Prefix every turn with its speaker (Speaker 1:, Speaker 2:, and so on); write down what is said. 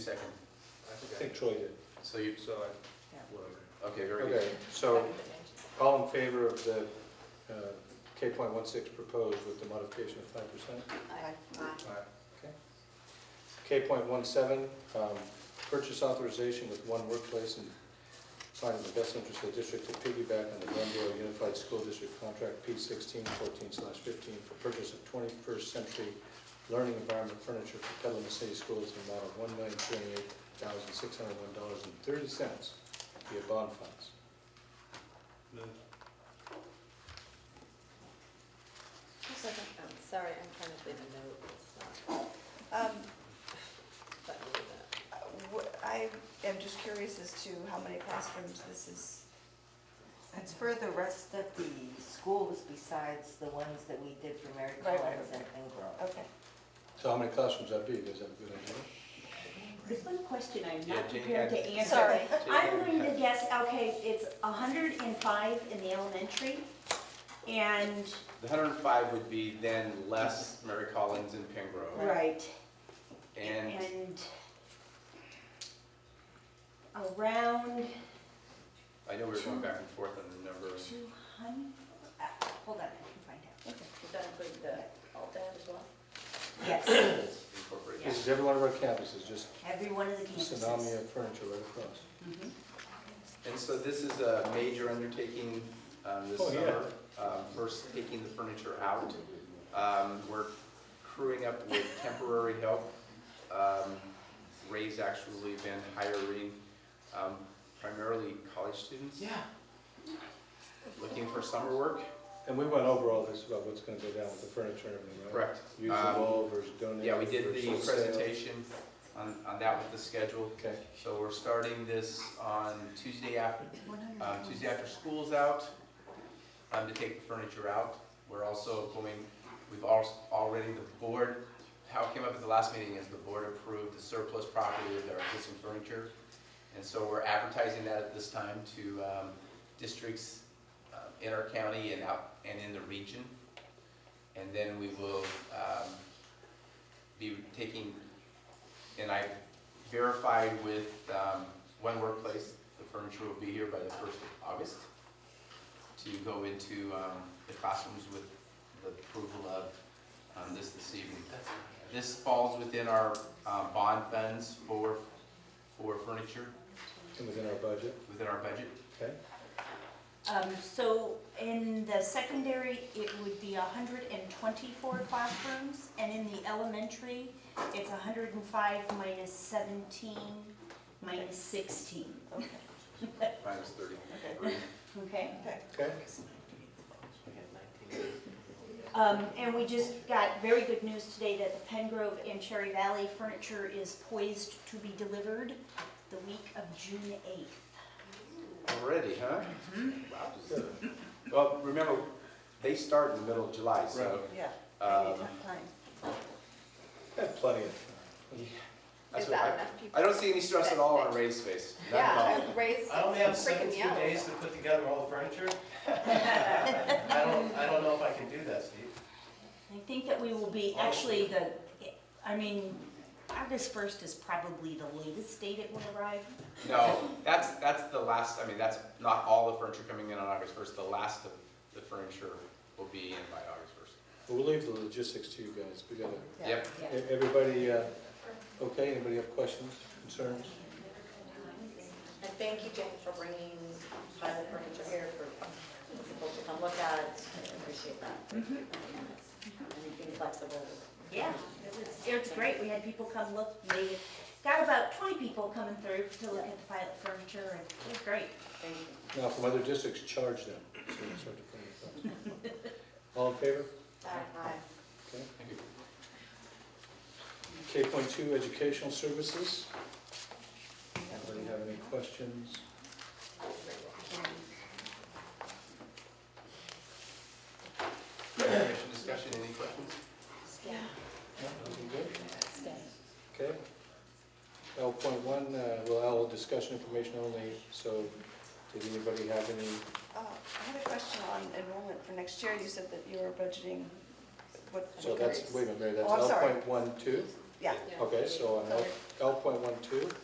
Speaker 1: Second,
Speaker 2: I think Troy did,
Speaker 1: so you,
Speaker 2: so I, whatever.
Speaker 1: okay, very good.
Speaker 2: Okay, so all in favor of the uh, K point one six proposed with the modification of five percent? Okay. K point one seven, um, purchase authorization with one workplace and finding the best interest of the district to piggyback on the Glendale Unified School District Contract P sixteen fourteen slash fifteen for purchase of twenty-first century learning environment furniture for Petaluma City Schools in the amount of one million two hundred eight thousand six hundred one dollars and thirty cents via bond funds.
Speaker 3: Just a second. Oh, sorry, I'm trying to leave a note, it's not,
Speaker 4: Um,
Speaker 3: but I need that.
Speaker 4: wh- I am just curious as to how many classrooms this is.
Speaker 5: It's for the rest of the schools besides the ones that we did for Mary
Speaker 4: Right, right,
Speaker 5: Collins and Ingram.
Speaker 4: Okay.
Speaker 2: So how many classrooms that'd be, is that a good idea?
Speaker 6: There's one question I'm
Speaker 1: Yeah,
Speaker 6: not
Speaker 1: Jane
Speaker 6: prepared to
Speaker 1: had-
Speaker 6: answer.
Speaker 4: Sorry.
Speaker 6: I'm going to guess, okay, it's hundred and five in the elementary, and,
Speaker 1: The hundred and five would be then less Mary Collins and Pingrove,
Speaker 6: right,
Speaker 1: and
Speaker 6: and around
Speaker 1: I know we were going back and forth on the number.
Speaker 6: two hundred, hold on, I can find out.
Speaker 3: Does that include the alt tab as well?
Speaker 6: Yes,
Speaker 1: It's incorporated.
Speaker 2: This is every one of our campuses, just
Speaker 6: every one of the
Speaker 2: tsunami
Speaker 6: campuses.
Speaker 2: of furniture right across.
Speaker 1: And so this is a major undertaking um, this
Speaker 2: Oh, yeah.
Speaker 1: summer. Um, First, taking the furniture out. Um, We're crewing up with temporary help. Um, Ray's actually been hiring um, primarily college students. Yeah. Looking for summer work.
Speaker 2: And we went over all this about what's gonna go down with the furniture and everything, right? Um,
Speaker 1: Correct.
Speaker 2: Usable versus donated.
Speaker 1: Yeah, we did the
Speaker 2: versus sale.
Speaker 1: presentation on, on that with the schedule.
Speaker 2: Okay,
Speaker 1: So we're starting this on Tuesday after, um, Tuesday after school's out, um, to take the furniture out. We're also going, we've al- already, the board, how it came up at the last meeting is the board approved the surplus property with our existing furniture. And so we're advertising that at this time to, um, districts uh, in our county and out, and in the region. And then we will, um, be taking, and I verified with, um, One Workplace, the furniture will be here by the first of August to go into, um, the classrooms with the approval of, um, this this evening. This falls within our, um, bond funds for, for furniture,
Speaker 2: and within our budget,
Speaker 1: within our budget.
Speaker 2: okay?
Speaker 6: Um, so in the secondary, it would be hundred and twenty-four classrooms, and in the elementary, it's hundred and five minus seventeen, minus sixteen,
Speaker 1: Minus thirty.
Speaker 6: okay?
Speaker 2: Okay,
Speaker 6: Um, and we just got very good news today that the Pen Grove and Cherry Valley furniture is poised to be delivered the week of June eighth.
Speaker 1: Already, huh?
Speaker 3: Mm-hmm.
Speaker 1: Wow. Well, remember, they start in the middle of July, so.
Speaker 4: Yeah.
Speaker 1: um,
Speaker 2: had plenty of time.
Speaker 1: that's
Speaker 3: Is
Speaker 1: what
Speaker 3: that
Speaker 1: I-
Speaker 3: enough people?
Speaker 1: I don't see any stress at all on Ray's face. None at all.
Speaker 3: Yeah, Ray's
Speaker 7: I only have
Speaker 3: freaking me
Speaker 7: seventeen
Speaker 3: out.
Speaker 7: days to put together all the furniture. I don't, I don't know if I can do that, Steve.
Speaker 6: I think that we will be, actually, the, I mean, August first is probably the latest date it will arrive.
Speaker 1: No, that's, that's the last, I mean, that's not all the furniture coming in on August first, the last of the furniture will be in by August first.
Speaker 2: We'll leave the logistics to you guys, we gotta,
Speaker 4: Yeah.
Speaker 1: Yep,
Speaker 2: e- everybody, uh, okay, anybody have questions, concerns?
Speaker 3: And thank you, Jane, for bringing pilot furniture here for people to come look at, I appreciate that. And being flexible.
Speaker 6: Yeah, it was, it was great, we had people come look, they got about twenty people coming through to look at the pilot furniture, and it was great.
Speaker 3: Thank you.
Speaker 2: Now, from other districts, charge them, so we'll start to put it up. All in favor?
Speaker 3: Hi.
Speaker 2: Okay.
Speaker 1: thank you.
Speaker 2: K point two, educational services. Anybody have any questions?
Speaker 1: Commission discussion, any questions?
Speaker 2: No, everything good? Okay. L point one, uh, well, L, discussion information only, so did anybody have any?
Speaker 4: Uh, I had a question on enrollment for next year. You said that you were budgeting what?
Speaker 2: So that's, wait a minute, Mary, that's
Speaker 4: Oh, I'm
Speaker 2: L
Speaker 4: sorry.
Speaker 2: point one two?
Speaker 4: Yeah.
Speaker 2: Okay, so on L, L point one two.